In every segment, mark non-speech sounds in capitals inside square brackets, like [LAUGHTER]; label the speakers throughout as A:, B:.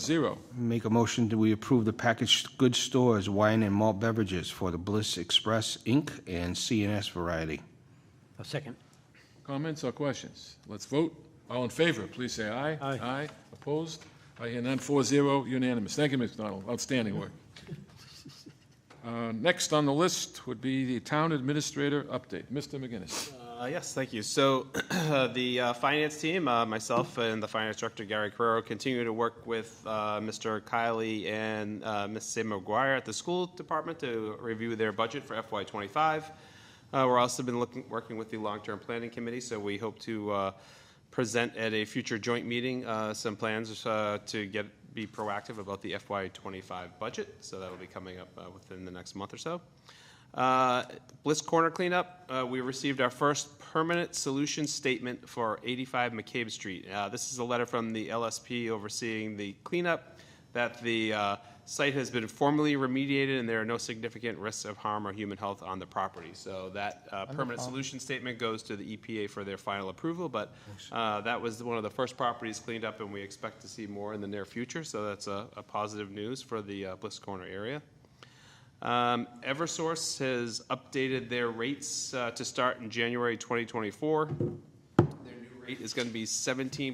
A: Zero.
B: Make a motion that we approve the packaged goods stores wine and malt beverages for the Bliss Express Inc. and CNS Variety.
C: A second.
A: Comments or questions? Let's vote. All in favor, please say aye.
C: Aye.
A: Aye. Opposed? I hear none. Four zero, unanimous. Thank you, Ms. Donald. Outstanding work. Uh, Next on the list would be the Town Administrator update. Mr. McGinnis.
D: Uh, Yes, thank you. So [CLEARS THROAT] the uh, finance team, uh, myself and the finance director, Gary Carrero, continue to work with uh, Mr. Kiley and uh, Ms. Sam McGuire at the school department to review their budget for FY '25. Uh, We're also been looking, working with the long-term planning committee, so we hope to uh, present at a future joint meeting uh, some plans uh, to get, be proactive about the FY '25 budget. So that'll be coming up uh, within the next month or so. Uh, Bliss Corner cleanup, uh, we received our first permanent solution statement for 85 McCabe Street. Uh, This is a letter from the LSP overseeing the cleanup, that the uh, site has been formally remediated and there are no significant risks of harm or human health on the property. So that uh, permanent solution statement goes to the EPA for their final approval, but uh, that was one of the first properties cleaned up, and we expect to see more in the near future, so that's a a positive news for the uh, Bliss Corner area. Um, Eversource has updated their rates uh, to start in January 2024. Their new rate is going to be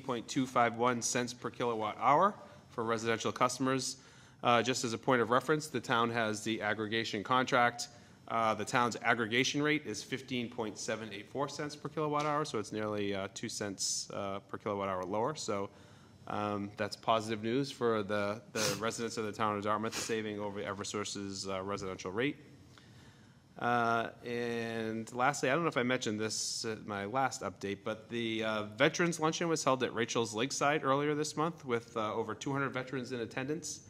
D: 17.251 cents per kilowatt hour for residential customers. Uh, Just as a point of reference, the town has the aggregation contract. Uh, The town's aggregation rate is 15.784 cents per kilowatt hour, so it's nearly uh, 2 cents uh, per kilowatt hour lower. So um, That's positive news for the, the residents of the town of Dartmouth, saving over Eversource's uh, residential rate. Uh, And lastly, I don't know if I mentioned this at my last update, but the uh, Veterans Luncheon was held at Rachel's Lakeside earlier this month with uh, over 200 veterans in attendance.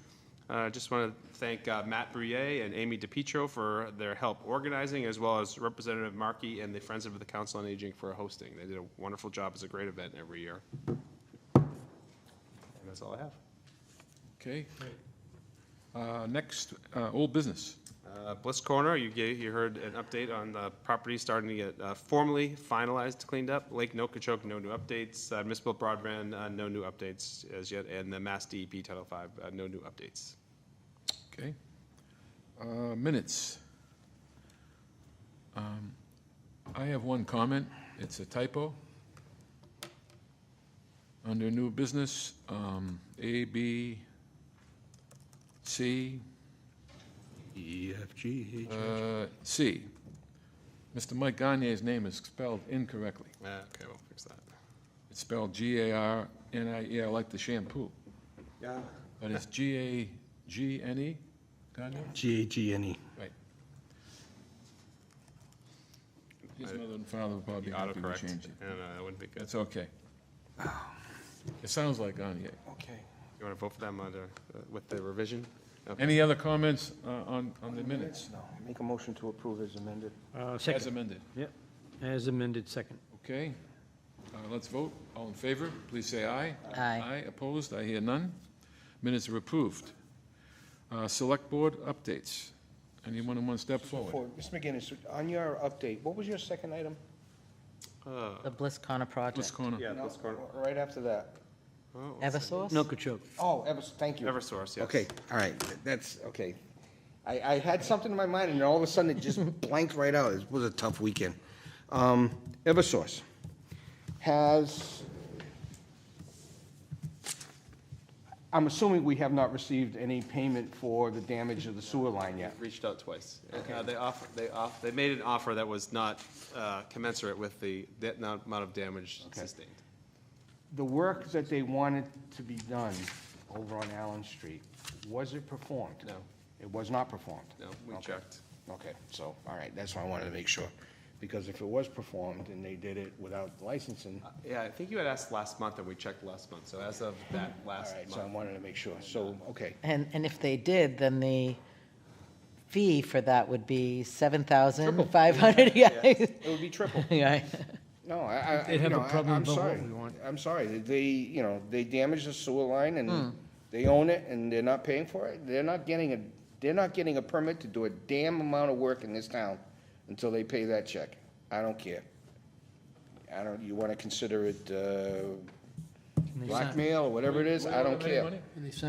D: Uh, I just want to thank uh, Matt Brouillet and Amy DePietro for their help organizing, as well as Representative Markey and the Friends of the Council on Aging for hosting. They did a wonderful job. It's a great event every year. And that's all I have.
A: Okay. Uh, Next, uh, Old Business.
D: Uh, Bliss Corner, you gave, you heard an update on the property starting to get uh, formally finalized, cleaned up. Lake Nokichoke, no new updates. Uh, Municipal broadband, uh, no new updates as yet, and the Mass DEP Title Five, uh, no new updates.
A: Okay. Uh, Minutes. Um, I have one comment. It's a typo. Under new business, um, A, B, C,
B: E F G H.
A: uh, C. Mr. Mike Gagne's name is spelled incorrectly.
D: Uh, okay, we'll fix that.
A: It's spelled G-A-R-N-I-E, I like the shampoo,
D: Yeah.
A: but it's G-A-G-N-E, E? Gagne?
B: G A G N E.
A: Right. His mother and father will probably be happy we
D: Autocorrect,
A: change it.
D: and uh, that wouldn't be good.
A: That's okay. It sounds like Gagne.
D: Okay. You want to vote for them under, uh, with the revision? Okay.
A: Any other comments uh, on, on the minutes
B: No, make a motion to approve as amended.
C: Uh,
A: as
C: second.
A: amended?
C: Yep. As amended, second.
A: Okay, Uh, let's vote. All in favor, please say aye.
E: Aye.
A: Aye, opposed, I hear none. Minutes are approved. Uh, Select Board updates. Anyone who wants to step forward?
B: Mr. McGinnis, on your update, what was your second item?
D: Uh,
E: The Bliss Corner
A: Bliss
E: project.
A: Corner.
D: Yeah, Bliss Corner.
B: Right after that.
D: Oh,
E: Eversource?
C: Nokuchoke.
B: Oh, Evers, thank you.
D: Eversource, yes.
B: Okay, all right, that's, okay. I, I had something in my mind, and all of a sudden, it just [LAUGHS] blanked right out. It was a tough weekend. Um, Eversource has, I'm assuming we have not received any payment for the damage of the sewer line yet.
D: Reached out twice. Uh, They offered, they off, they made an offer that was not uh, commensurate with the, the amount of damage
B: Okay.
D: sustained.
B: The work that they wanted to be done over on Allen Street, was it performed?
D: No.
B: It was not performed?
D: No, we
B: Okay.
D: checked.
B: Okay, so, all right, that's why I wanted to make sure, because if it was performed and they did it without licensing, all
D: Yeah, I think you had asked last month, and we checked last month, so as of that last
B: right, so I
D: month.
B: wanted to make sure, so, okay.
E: And, and if they did, then the fee for that would be 7,500. [LAUGHS] Yeah.
D: It would be triple.
E: [LAUGHS] Yeah.
B: No, I, I,
C: They'd
B: you
C: have a
B: know, I-
C: problem
B: I'm
C: about what
B: sorry.
C: we want.
B: I'm sorry, that they, you know, they damaged the sewer line and they own it and they're not paying for it. They're not getting a, they're not getting a permit to do a damn amount of work in this town until they pay that check. I don't care. I don't, you wanna consider it, uh,
C: they sign-
B: blackmail or whatever it is, I don't
A: Anybody
B: care.
A: want it?
C: And they signed